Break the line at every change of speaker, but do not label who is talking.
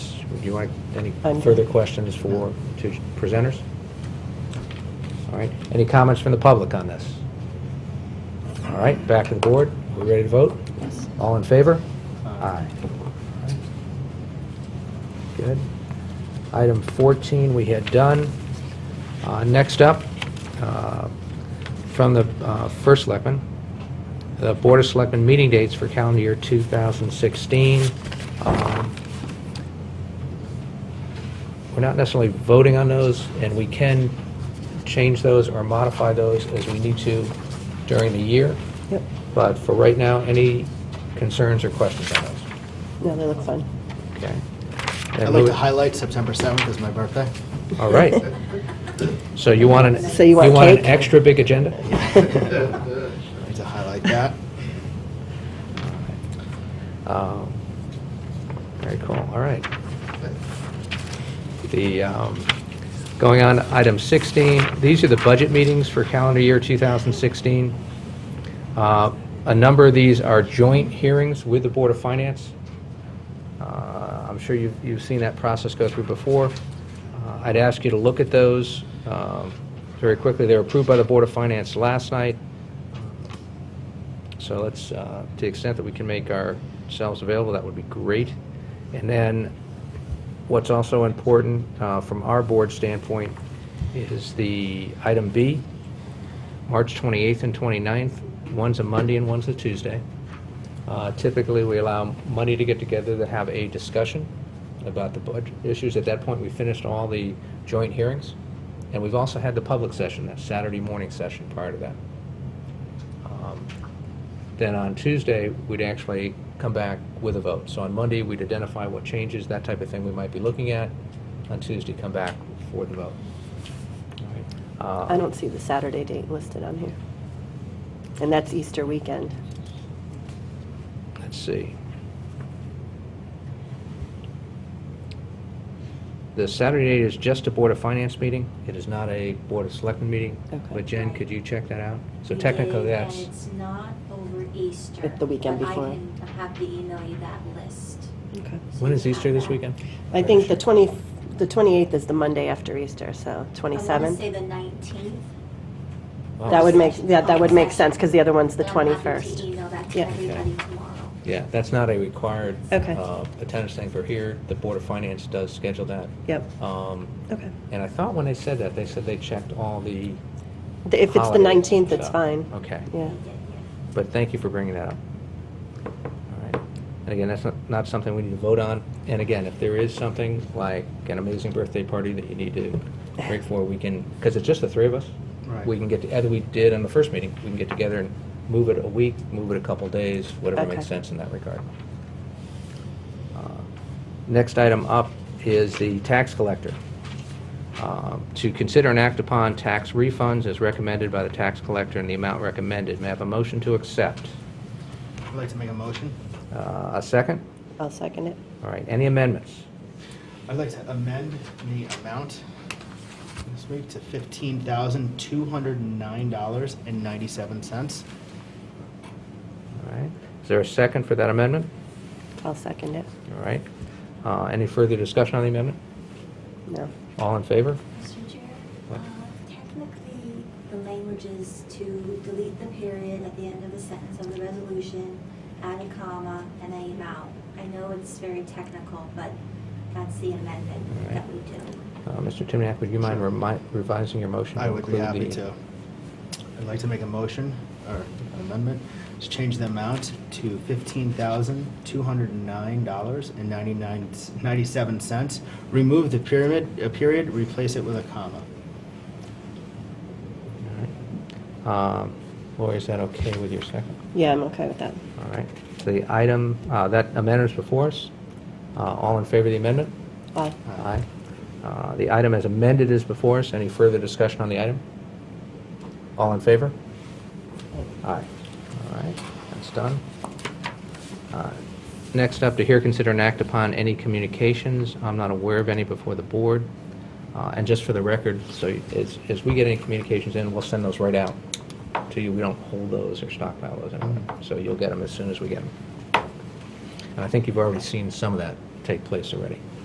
Would you like any
I'm-
further questions for two presenters? All right, any comments from the public on this? All right, back to the board. We ready to vote?
Yes.
All in favor? Aye. Good. Item 14, we had done. Uh, Next up, uh, from the uh, First Selectman, the Board of Selectmen meeting dates for calendar year 2016. Um, We're not necessarily voting on those, and we can change those or modify those as we need to during the year.
Yep,
But for right now, any concerns or questions on those?
no, they look fun.
Okay.
I'd like to highlight September 7th is my birthday.
All right. So you want an...
So you want
an
cake?
extra big agenda?
I'd like to highlight that.
Um, Very cool, all right. The, um, going on, to item 16, these are the budget meetings for calendar year 2016. Uh, A number of these are joint hearings with the Board of Finance. Uh, I'm sure you've you've seen that process go through before. Uh, I'd ask you to look at those um, very quickly. They were approved by the Board of Finance last night. So let's, uh, to the extent that we can make ourselves available, that would be great. And then, what's also important uh, from our board standpoint is the item B, March 28th and 29th. One's a Monday and one's a Tuesday. Uh, Typically, we allow Monday to get together to have a discussion about the budget issues. At that point, we finished all the joint hearings, and we've also had the public session, that Saturday morning session prior to that. Um, Then on Tuesday, we'd actually come back with a vote. So on Monday, we'd identify what changes, that type of thing we might be looking at. On Tuesday, come back for the vote. Uh,
I don't see the Saturday date listed on here. And that's Easter weekend.
Let's see. The Saturday date is just a Board of Finance meeting. It is not a Board of Selectmen meeting.
Okay.
But Jen, could you check that out? So
It
technically,
is,
that's...
And it's not over Easter.
It's the weekend
but
before.
I can have to email you that list.
Okay.
so
When
you
is
have
Easter this
that.
weekend?
I think the 20, the 28th is the Monday after Easter, so
I want to say
27th.
the 19th.
Oh.
That would make, yeah, that would make sense, because the other one's the
but I'm happy to
21st.
email that to
Yeah.
everybody tomorrow.
Yeah, that's not a required
Okay.
uh, attendance thing for here. The Board of Finance does schedule that.
Yep,
Um,
okay.
And I thought when they said that, they said they checked all the
The- If it's the
holidays and
19th, it's
stuff.
fine.
Okay.
Yeah.
We did, yeah.
But thank you for bringing that up. All right. And again, that's not, not something we need to vote on. And again, if there is something like an amazing birthday party that you need to break for, we can, because it's just the three of us.
Right.
We can get, to- as we did on the first meeting, we can get together and move it a week, move it a couple days, whatever
Okay.
makes sense in that regard. Uh, Next item up is the tax collector. Um, To consider and act upon tax refunds as recommended by the tax collector and the amount recommended. May I have a motion to accept?
I'd like to make a motion.
Uh, A second?
I'll second it.
All right, any amendments?
I'd like to amend the amount this week to $15,209.97.
All right, is there a second for that amendment?
I'll second it.
All right, Uh, any further discussion on the amendment?
No.
All in favor?
Mr. Chair,
What?
uh, technically, the language is to delete the period at the end of the sentence of the resolution, add a comma, and a amount. I know it's very technical, but that's the amendment
All right.
that we do.
Uh, Mr. Timniak, would you mind
Sure.
remi- revising your motion? to
I would be
include
happy
the-
to. I'd like to make a motion or an amendment to change the amount to $15,209.97. Remove the pyramid, uh, period, replace it with a comma.
All right. Um, Lori, is that okay with your second?
Yeah, I'm okay with that.
All right, So the item, uh, that amendment is before us. Uh, All in favor of the amendment?
Aye.
Aye. Uh, The item as amended is before us. Any further discussion on the item? All in favor? Aye. All right, that's done. Uh, Next up, to hear, consider, and act upon any communications. I'm not aware of any before the board. Uh, And just for the record, so as, as we get any communications in, we'll send those right out to you. We don't hold those or stockpile those anyway. So you'll get them as soon as we get them. And I think you've already seen some of that take place already.